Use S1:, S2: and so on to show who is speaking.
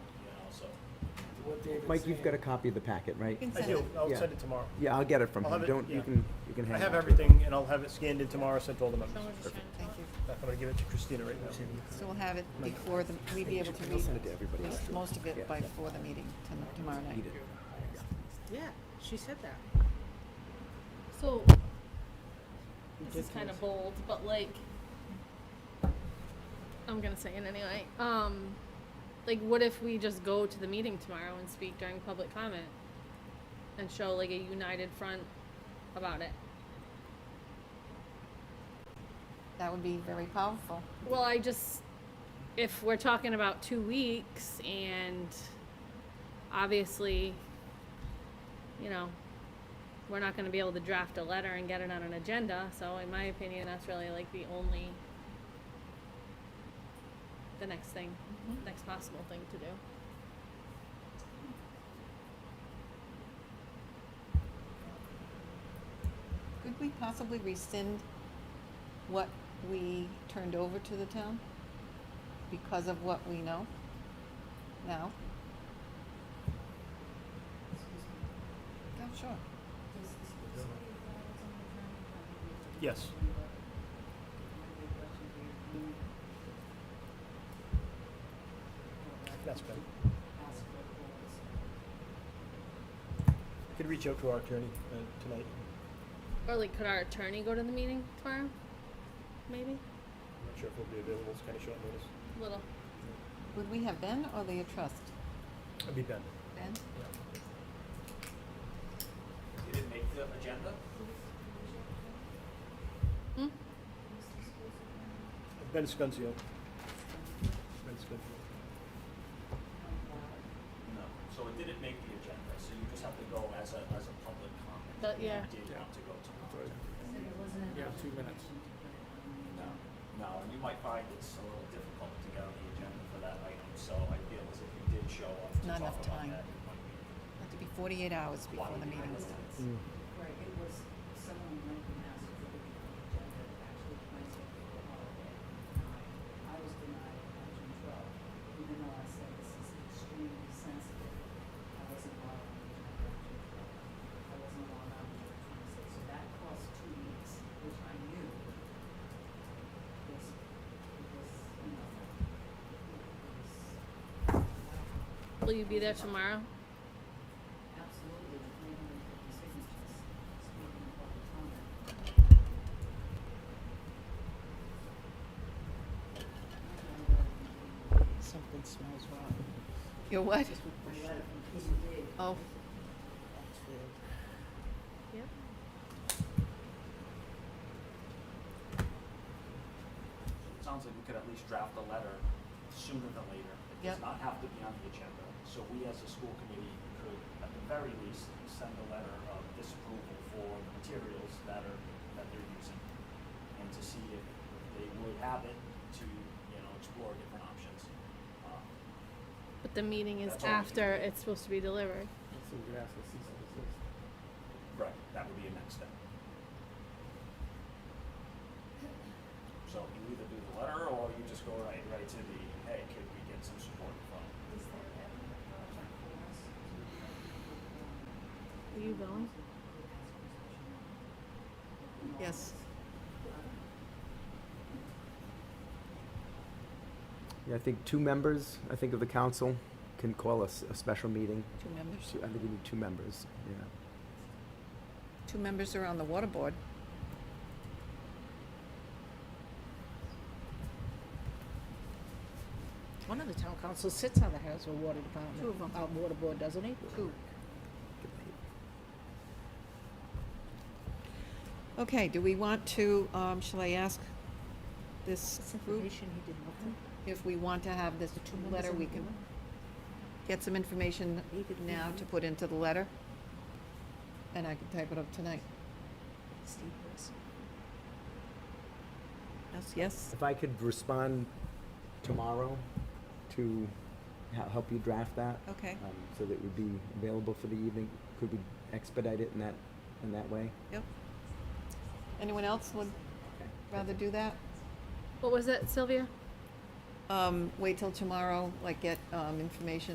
S1: what David's
S2: Mike, you've got a
S1: saying.
S2: copy of the packet, right?
S3: You can
S4: I
S3: send
S4: do,
S3: it.
S4: I'll
S2: Yeah.
S4: send it tomorrow.
S2: Yeah, I'll get it from
S4: I'll
S2: him.
S4: have it-
S2: Don't, you
S4: yeah.
S2: can, you can hang
S4: I have
S2: on.
S4: everything, and I'll have it scanned in tomorrow, sent to all the members.
S3: Someone just trying to- Thank you.
S4: I'm gonna give it to Christina right now.
S3: So we'll have it before the, we'd be able to read
S2: send it to everybody
S3: most-
S2: after.
S3: most of
S2: Yeah.
S3: it by, before the meeting tom- tomorrow night.
S2: Eat it.
S5: Yeah, she said that.
S6: So, this is kind of bold, but like, I'm gonna say it anyway. Um, like, what if we just go to the meeting tomorrow and speak during public comment and show like a united front about it?
S3: That would be very powerful.
S6: Well, I just, if we're talking about two weeks and obviously, you know, we're not gonna be able to draft a letter and get it on an agenda, so in my opinion, that's really like the only, the next thing, next possible thing to do.
S3: Could we possibly rescind what we turned over to the town because of what we know now? Yeah, sure.
S4: Yes. That's better. Could reach out to our attorney uh, tonight.
S6: Or like, could our attorney go to the meeting tomorrow? Maybe,
S4: I'm not sure if we'll be available, it's kind of short notice.
S6: little.
S3: Would we have Ben or the trust?
S4: I'll be Ben.
S3: Ben?
S7: You didn't make the agenda?
S6: Hmm?
S4: Ben Scunzio. Ben Scunzio.
S7: No. So it didn't make the agenda, so you just have to go as a, as a public comment.
S6: But, yeah.
S7: You did want to go to,
S1: You have two minutes.
S7: no, no, and you might find it's a little difficult to get on the agenda for that item, so I feel as if you did show up to
S3: Not
S7: talk
S3: enough
S7: about
S3: time.
S7: that, it might be.
S3: Have to be forty-eight hours before the meeting starts.
S8: Right, it was someone like the master for the agenda, actually, my schedule for holiday, denied. I was denied on June twelfth, even though I said this is extremely sensitive. I wasn't allowed on the agenda on June twelfth. I wasn't allowed on June twenty-sixth, so that cost two weeks, which I knew was, was, you know, was
S6: Will you be there tomorrow?
S8: absolutely three hundred and fifty signatures, speaking of public comment.
S5: Something smells wrong.
S3: You're what?
S8: That's
S3: Oh,
S5: weird.
S6: Yep.
S7: It sounds like we could at least draft a letter sooner than later. It
S3: Yep.
S7: does not have to be on the agenda, so we as a school committee could, at the very least, send a letter of disapproval for the materials that are, that they're using. And to see if they would have it to, you know, explore different options. Um,
S6: But the meeting is
S7: That's all we can
S6: after
S7: do.
S6: it's supposed to be delivered.
S1: So you could ask the cease and desist.
S7: Right, that would be a next step. So you either do the letter or you just go right, right to the, hey, could we get some support from?
S6: Are you going?
S3: yes.
S2: Yeah, I think two members, I think of the council, can call us a special meeting.
S3: Two members.
S2: Two- I think you need two members, yeah.
S3: Two members are on the water board.
S5: One of the town council sits on the Hasbro Water Department.
S3: Two of 'em.
S5: Uh, water board, doesn't he?
S3: Two. Okay, do we want to, um, shall I ask this group
S5: he did nothing.
S3: if we want to have this letter? We can get some information
S5: He could be
S3: now
S5: on
S3: to
S5: it.
S3: put into the letter? And I can type it up tonight.
S5: Steve Wilson.
S3: Yes, yes?
S2: If I could respond tomorrow to he- help you draft that,
S3: Okay,
S2: um, so that it would be available for the evening, could we expedite it in that, in that way?
S3: yep. Anyone else would rather do that?
S6: What was it, Sylvia?
S3: Um, wait till tomorrow, like get, um, information